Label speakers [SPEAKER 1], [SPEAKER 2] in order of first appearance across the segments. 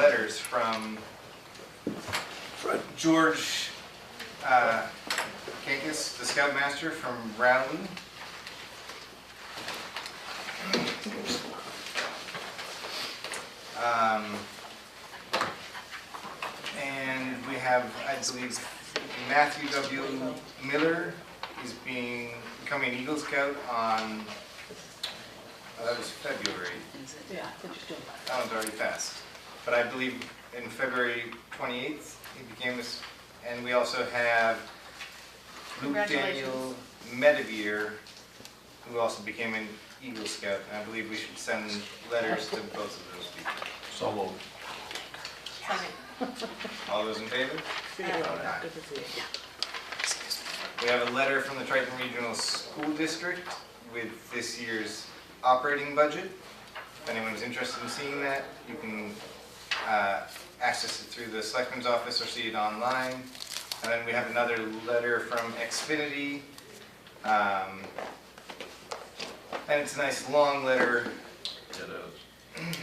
[SPEAKER 1] letters from George uh, Kankis, the scoutmaster from Rowley. Um, And we have, I believe, Matthew W. Miller is being, becoming an Eagle Scout on, oh, that was February.
[SPEAKER 2] Yeah, I think you still-
[SPEAKER 1] That one's already passed. But I believe in February 28th, he became this, and we also have Luke Daniel Medevere, who also became an Eagle Scout. And I believe we should send letters to both of those people.
[SPEAKER 3] So moved.
[SPEAKER 1] All those in favor?
[SPEAKER 2] figure out
[SPEAKER 1] Aye.
[SPEAKER 2] Good to see you.
[SPEAKER 1] We have a letter from the Triton Regional School District with this year's operating budget. If anyone's interested in seeing that, you can uh, access it through the Selectman's Office or see it online. And then we have another letter from Xfinity. um, And it's a nice, long letter
[SPEAKER 3] It is.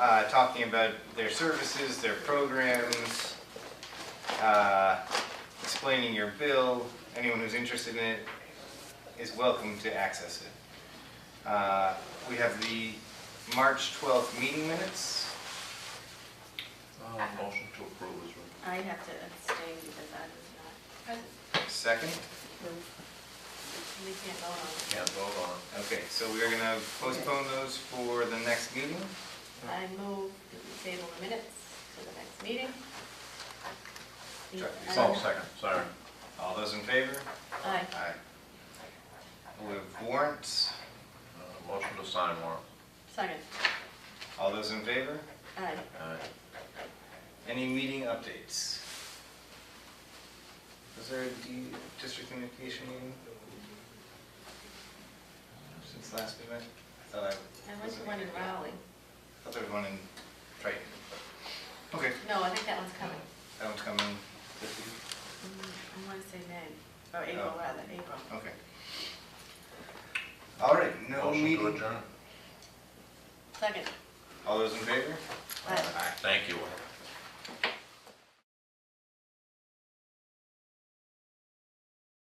[SPEAKER 1] uh, talking about their services, their programs, uh, explaining your bill. Anyone who's interested in it is welcome to access it. Uh, We have the March 12th meeting minutes.
[SPEAKER 3] Uh, Motion to approve is required.
[SPEAKER 4] I have to abstain because I was not,
[SPEAKER 1] Second?
[SPEAKER 4] we can't vote on it.
[SPEAKER 3] Can't vote on
[SPEAKER 1] Okay, so we are going to postpone those for the next meeting.
[SPEAKER 4] I move to table the minutes for the next meeting. uh,
[SPEAKER 1] Check.
[SPEAKER 3] it. Oh, second, sorry.
[SPEAKER 1] All those in favor?
[SPEAKER 4] Aye.
[SPEAKER 1] Aye. We have warrants.
[SPEAKER 3] Uh, Motion to sign warrant.
[SPEAKER 4] Second.
[SPEAKER 1] All those in favor?
[SPEAKER 4] Aye.
[SPEAKER 3] Aye.
[SPEAKER 1] Any meeting updates? Was there a D- district communication meeting? Since last we met? I thought I.
[SPEAKER 4] I went to one in Rowley.
[SPEAKER 1] I thought there was one in Triton. Okay,
[SPEAKER 4] No, I think that one's coming.
[SPEAKER 1] that one's coming this week,
[SPEAKER 4] Mm, I want to say May, or April
[SPEAKER 1] Oh.
[SPEAKER 4] rather, April.
[SPEAKER 1] okay. All right, no
[SPEAKER 3] Motion to
[SPEAKER 1] meeting.
[SPEAKER 3] adjourn.
[SPEAKER 4] Second.
[SPEAKER 1] All those in favor?
[SPEAKER 4] Aye.
[SPEAKER 3] Thank you.